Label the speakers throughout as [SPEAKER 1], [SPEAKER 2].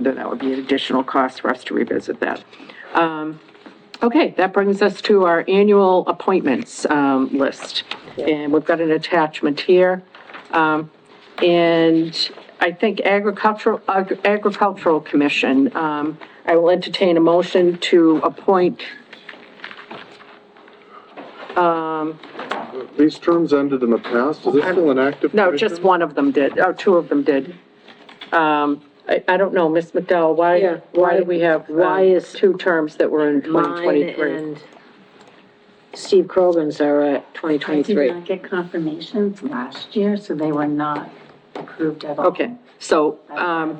[SPEAKER 1] calendar, that would be an additional cost for us to revisit that. Um, Okay, that brings us to our annual appointments um, list. And we've got an attachment here. Um, And I think agricultural, Ag- agricultural commission, um, I will entertain a motion to appoint,
[SPEAKER 2] These terms ended in the past, is this still an active?
[SPEAKER 1] no, just
[SPEAKER 2] commission?
[SPEAKER 1] one of them did, oh, two of them did. Um, I, I don't know, Ms. McDowell,
[SPEAKER 3] Yeah,
[SPEAKER 1] why, why do
[SPEAKER 3] why-
[SPEAKER 1] we have? uh,
[SPEAKER 3] why is-
[SPEAKER 1] Two terms that were in
[SPEAKER 3] Mine
[SPEAKER 1] 2023.
[SPEAKER 3] and Steve Krogan's are at twenty
[SPEAKER 4] I did
[SPEAKER 3] twenty-three.
[SPEAKER 4] not get confirmations last year, so they were not approved at all.
[SPEAKER 1] Okay, so, um,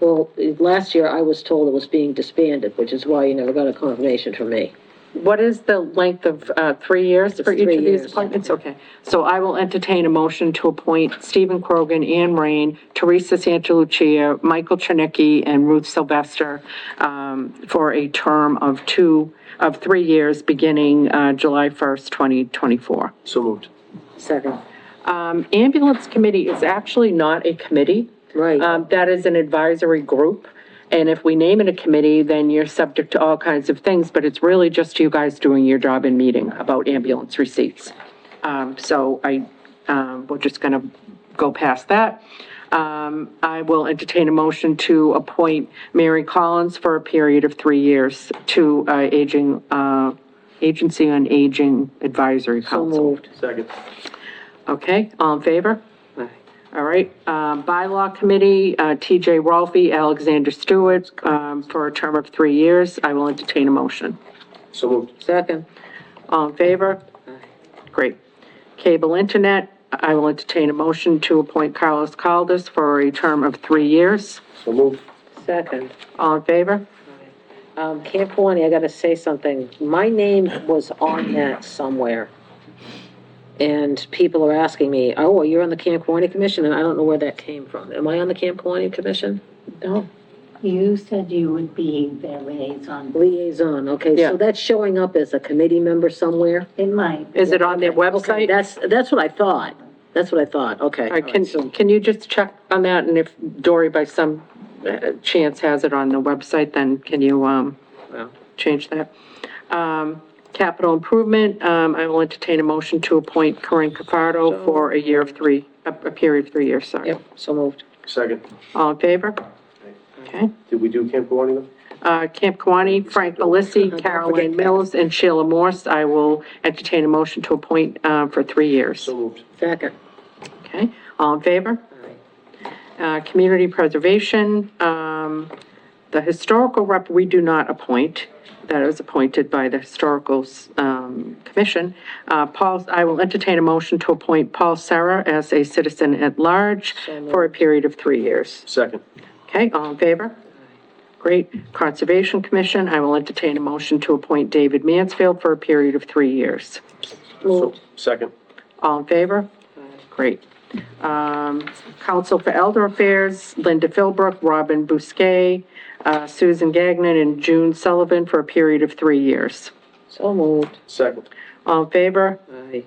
[SPEAKER 3] Well, eh, last year I was told it was being disbanded, which is why you never got a confirmation from me.
[SPEAKER 1] What is the length of, uh, three years for each
[SPEAKER 3] three
[SPEAKER 1] of these
[SPEAKER 3] years.
[SPEAKER 1] appointments? Okay, so I will entertain a motion to appoint Stephen Krogan, Anne Rain, Teresa Santalucia, Michael Chernicki, and Ruth Sylvester, um, for a term of two, of three years, beginning, uh, July 1st, 2024.
[SPEAKER 2] So moved.
[SPEAKER 3] Second.
[SPEAKER 1] Um, ambulance committee is actually not a committee.
[SPEAKER 3] Right.
[SPEAKER 1] Um, that is an advisory group. And if we name it a committee, then you're subject to all kinds of things, but it's really just you guys doing your job and meeting about ambulance receipts. Um, so I, um, we're just gonna go past that. Um, I will entertain a motion to appoint Mary Collins for a period of three years to, uh, aging, uh, Agency on Aging Advisory
[SPEAKER 3] So
[SPEAKER 1] Council.
[SPEAKER 3] moved.
[SPEAKER 2] Second.
[SPEAKER 1] Okay, all in favor? All right, um, bylaw committee, uh, TJ Rolfe, Alexander Stewart, um, for a term of three years. I will entertain a motion.
[SPEAKER 2] So moved.
[SPEAKER 3] Second.
[SPEAKER 1] All in favor? Great. Cable internet, I will entertain a motion to appoint Carlos Caldas for a term of three years.
[SPEAKER 2] So moved.
[SPEAKER 3] Second.
[SPEAKER 1] All in favor?
[SPEAKER 3] Um, Camp Kewaunee, I gotta say something. My name was on that somewhere. And people are asking me, oh, well, you're on the Camp Kewaunee Commission, and I don't know where that came from. Am I on the Camp Kewaunee Commission? No.
[SPEAKER 4] You said you would be their liaison.
[SPEAKER 3] Liaison, okay,
[SPEAKER 1] Yeah.
[SPEAKER 3] so that's showing up as a committee member somewhere?
[SPEAKER 4] It might.
[SPEAKER 1] Is it on their
[SPEAKER 3] Okay,
[SPEAKER 1] website?
[SPEAKER 3] That's, that's what I thought. That's what I thought, okay.
[SPEAKER 1] All right, can, can you just check on that, and if Dory by some uh, chance has it on the website, then can you, um,
[SPEAKER 3] Well.
[SPEAKER 1] change that? Um, capital improvement, um, I will entertain a motion to appoint Corinne Cafardo for a year of three, a, a period of three years, sorry.
[SPEAKER 3] Yep, so moved.
[SPEAKER 2] Second.
[SPEAKER 1] All in favor? Okay.
[SPEAKER 2] Did we do Camp Kawani though?
[SPEAKER 1] Uh, Camp Kawani, Frank Belissi, Caroline Mills, and Sheila Morse, I will entertain a motion to appoint, uh, for three years.
[SPEAKER 2] moved.
[SPEAKER 3] Second.
[SPEAKER 1] Okay, all in favor? Uh, community preservation, um, the historical rep, we do not appoint. That is appointed by the historical, um, commission. Uh, Paul, I will entertain a motion to appoint Paul Sarah as a citizen at large for a period of three years.
[SPEAKER 2] Second.
[SPEAKER 1] Okay, all in favor? Great. Conservation Commission, I will entertain a motion to appoint David Mansfield for a period of three years.
[SPEAKER 2] So Second.
[SPEAKER 1] All in favor? Great. Um, Council for Elder Affairs, Linda Philbrook, Robin Bousquet, uh, Susan Gagnon, and June Sullivan for a period of three years.
[SPEAKER 3] So moved.
[SPEAKER 2] Second.
[SPEAKER 1] All in favor?
[SPEAKER 3] Aye.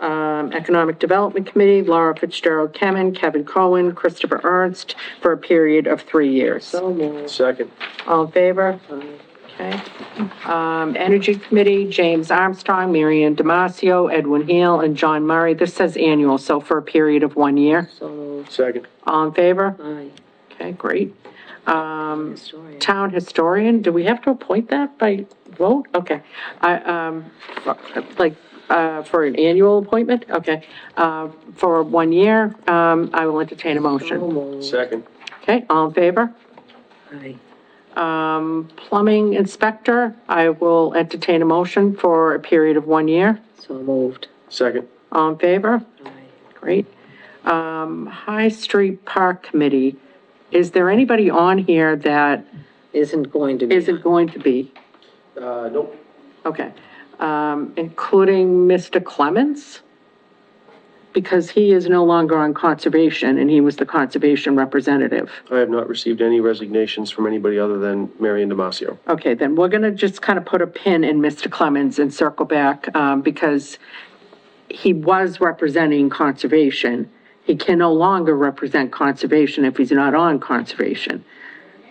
[SPEAKER 1] Um, Economic Development Committee, Laura Fitzgerald Kemen, Kevin Cohen, Christopher Ernst for a period of three years.
[SPEAKER 3] So moved.
[SPEAKER 2] Second.
[SPEAKER 1] All in favor? Okay. Um, Energy Committee, James Armstrong, Marianne Damasio, Edwin Hale, and John Murray. This says annual, so for a period of one year.
[SPEAKER 3] So moved.
[SPEAKER 2] Second.
[SPEAKER 1] All in favor?
[SPEAKER 3] Aye.
[SPEAKER 1] Okay, great.
[SPEAKER 3] Mm.
[SPEAKER 1] Um,
[SPEAKER 3] Historian.
[SPEAKER 1] town historian, do we have to appoint that by vote? Okay. I, um, like, uh, for an annual appointment? Okay. Uh, for one year, um, I will entertain a
[SPEAKER 3] So
[SPEAKER 1] motion.
[SPEAKER 3] moved.
[SPEAKER 2] Second.
[SPEAKER 1] Okay, all in favor?
[SPEAKER 3] Aye.
[SPEAKER 1] Um, plumbing inspector, I will entertain a motion for a period of one year.
[SPEAKER 3] So moved.
[SPEAKER 2] Second.
[SPEAKER 1] All in favor?
[SPEAKER 3] Aye.
[SPEAKER 1] Great. Um, High Street Park Committee, is there anybody on here that
[SPEAKER 3] Isn't going to be.
[SPEAKER 1] isn't going to be?
[SPEAKER 2] Uh, nope.
[SPEAKER 1] Okay, um, including Mr. Clements? Because he is no longer on conservation and he was the conservation representative.
[SPEAKER 2] I have not received any resignations from anybody other than Marion Damasio.
[SPEAKER 1] Okay, then we're gonna just kind of put a pin in Mr. Clemens and circle back, um, because he was representing conservation. He can no longer represent conservation if he's not on conservation.